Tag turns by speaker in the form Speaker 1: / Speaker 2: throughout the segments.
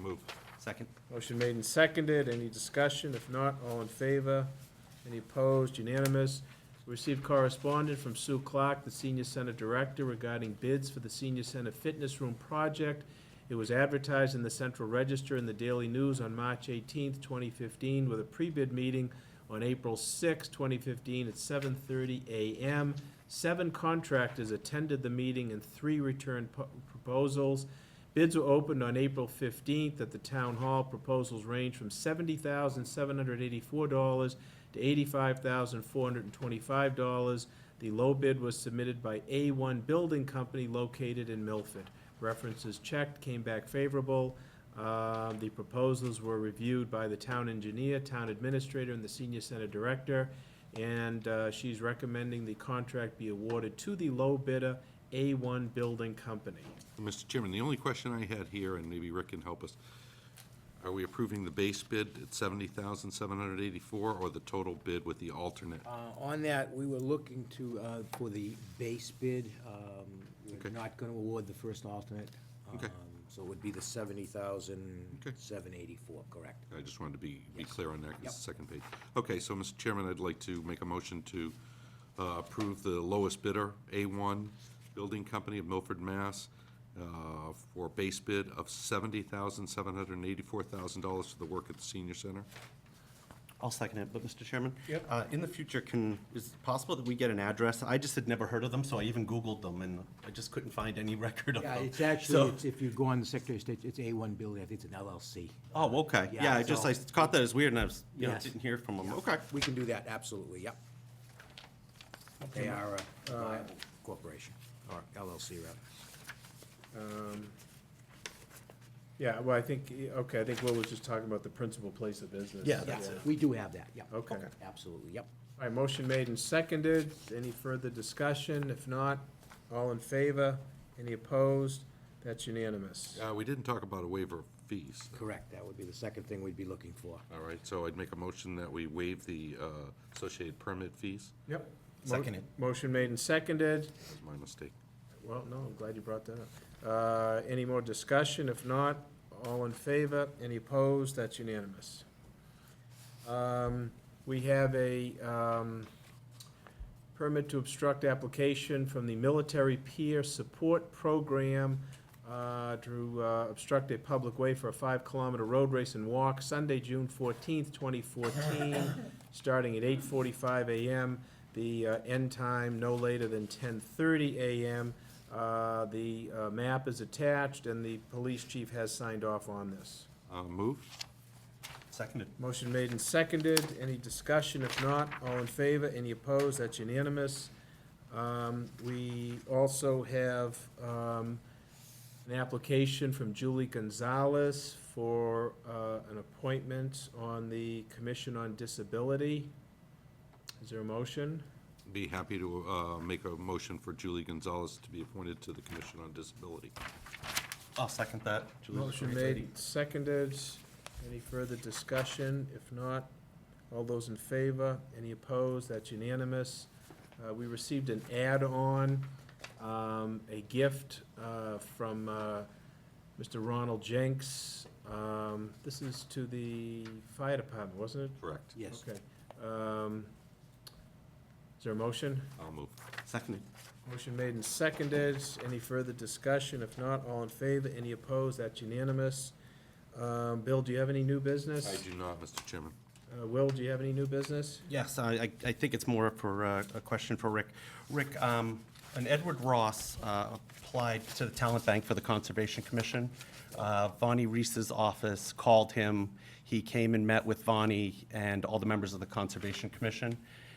Speaker 1: move. Second?
Speaker 2: Motion made and seconded. Any discussion? If not, all in favor? Any opposed? Unanimous. Received correspondence from Sue Clark, the Senior Center Director, regarding bids for the Senior Center Fitness Room project. It was advertised in the Central Register and the Daily News on March eighteenth, twenty fifteen, with a pre-bid meeting on April sixth, twenty fifteen, at seven thirty AM. Seven contractors attended the meeting and three returned po- proposals. Bids were opened on April fifteenth at the town hall. Proposals range from seventy thousand seven hundred eighty-four dollars to eighty-five thousand four hundred and twenty-five dollars. The low bid was submitted by A one Building Company located in Milford. References checked, came back favorable. Uh, the proposals were reviewed by the town engineer, town administrator, and the senior center director. And, uh, she's recommending the contract be awarded to the low bidder, A one Building Company.
Speaker 1: Mr. Chairman, the only question I had here, and maybe Rick can help us, are we approving the base bid at seventy thousand seven hundred eighty-four, or the total bid with the alternate?
Speaker 3: Uh, On that, we were looking to, uh, for the base bid. um,
Speaker 1: Okay.
Speaker 3: We're not going to award the first alternate.
Speaker 1: Okay.
Speaker 3: um, So it would be the seventy thousand,
Speaker 1: Okay.
Speaker 3: seven eighty-four, correct?
Speaker 1: I just wanted to be, be clear on that, 'cause
Speaker 3: Yep.
Speaker 1: it's the second page. Okay, so, Mr. Chairman, I'd like to make a motion to uh, approve the lowest bidder, A1 Building Company of Milford, Mass., uh, for base bid of $70,784,000 for the work at the senior center.
Speaker 4: I'll second it, but Mr. Chairman?
Speaker 2: Yep.
Speaker 4: uh, In the future, can, is it possible that we get an address? I just had never heard of them, so I even Googled them, and I just couldn't find any record of them.
Speaker 3: Yeah, it's
Speaker 4: So-
Speaker 3: actually, it's- if you go on the Secretary of State, it's A one building, I think it's an LLC.
Speaker 4: Oh, okay,
Speaker 3: Yeah,
Speaker 4: yeah, I just, I
Speaker 3: so-
Speaker 4: caught that as weird, and I was, you know,
Speaker 3: Yes.
Speaker 4: didn't hear from them, okay.
Speaker 3: We can do that, absolutely, yep. They are a viable corporation, or LLC rather.
Speaker 2: Um, Yeah, well, I think, okay, I think Will was just talking about the principal place of business.
Speaker 4: Yeah,
Speaker 3: Yeah, we do have that, yep.
Speaker 2: Okay.
Speaker 3: Absolutely, yep.
Speaker 2: All right, motion made and seconded. Any further discussion? If not, all in favor? Any opposed? That's unanimous.
Speaker 1: Uh, We didn't talk about a waiver of fees.
Speaker 3: Correct, that would be the second thing we'd be looking for.
Speaker 1: All right, so I'd make a motion that we waive the uh, associated permit fees.
Speaker 2: Yep.
Speaker 4: Seconded.
Speaker 2: Motion made and seconded.
Speaker 1: That was my mistake.
Speaker 2: Well, no, I'm glad you brought that up. Uh, Any more discussion? If not, all in favor? Any opposed? That's unanimous. Um, We have a um, permit to obstruct application from the Military Peer Support Program uh, to uh, obstruct a public way for a five-kilometer road race and walk Sunday, June fourteenth, twenty fourteen, starting at eight forty-five AM. The uh, end time no later than ten thirty AM. Uh, The uh, map is attached, and the police chief has signed off on this.
Speaker 1: Uh, Move?
Speaker 4: Seconded.
Speaker 2: Motion made and seconded. Any discussion? If not, all in favor? Any opposed? That's unanimous. Um, We also have um, an application from Julie Gonzalez for uh, an appointment on the Commission on Disability. Is there a motion?
Speaker 1: Be happy to uh, make a motion for Julie Gonzalez to be appointed to the Commission on Disability.
Speaker 4: I'll second that. Julie's
Speaker 2: Motion made,
Speaker 4: great.
Speaker 2: and seconded. Any further discussion? If not, all those in favor? Any opposed? That's unanimous. Uh, we received an add-on, um, a gift, uh, from, uh, Mr. Ronald Jenks. Um, this is to the fire department, wasn't it?
Speaker 1: Correct.
Speaker 3: Yes.
Speaker 2: Okay. Um, is there a motion?
Speaker 1: I'll move.
Speaker 4: Seconded.
Speaker 2: Motion made and seconded. Any further discussion? If not, all in favor? Any opposed? That's unanimous. Um, Bill, do you have any new business?
Speaker 1: I do not, Mr. Chairman.
Speaker 2: Uh, Will, do you have any new business?
Speaker 4: Yes, I, I- I think it's more for uh, a question for Rick. Rick, um, an Edward Ross uh, applied to the Talent Bank for the Conservation Commission. Uh, Vonnie Reese's office called him. He came and met with Vonnie and all the members of the Conservation Commission,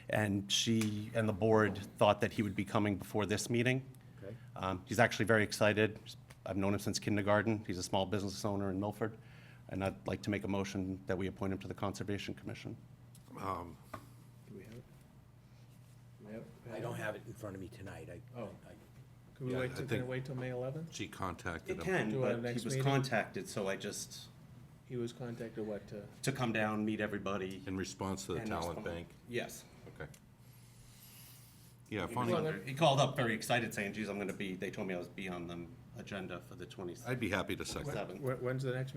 Speaker 4: and she and the board thought that he would be coming before this meeting.
Speaker 2: Okay.
Speaker 4: Um, He's actually very excited. I've known him since kindergarten. He's a small business owner in Milford, and I'd like to make a motion that we appoint him to the Conservation Commission.
Speaker 1: Um,
Speaker 2: Do we have it?
Speaker 3: I don't have it in front of me tonight, I.
Speaker 2: Oh.
Speaker 3: I-
Speaker 2: Can we
Speaker 1: Yeah,
Speaker 2: wait,
Speaker 1: I
Speaker 2: till- can I
Speaker 1: think-
Speaker 2: wait till May eleventh?
Speaker 1: She contacted
Speaker 4: It
Speaker 1: him.
Speaker 4: can,
Speaker 2: Do our
Speaker 4: but
Speaker 2: next
Speaker 4: he was
Speaker 2: meeting?
Speaker 4: contacted, so I just,
Speaker 2: He was contacted, what, uh,
Speaker 4: to come down, meet everybody.
Speaker 1: In response to the
Speaker 4: and
Speaker 1: talent
Speaker 4: respond.
Speaker 1: bank.
Speaker 4: Yes.
Speaker 1: Okay. Yeah,
Speaker 4: He
Speaker 1: funny.
Speaker 4: was under- He called up very excited saying, geez, I'm gonna be, they told me I was be on the agenda for the
Speaker 1: I'd be happy to second.
Speaker 4: 27th.
Speaker 2: wh- when's the next meeting?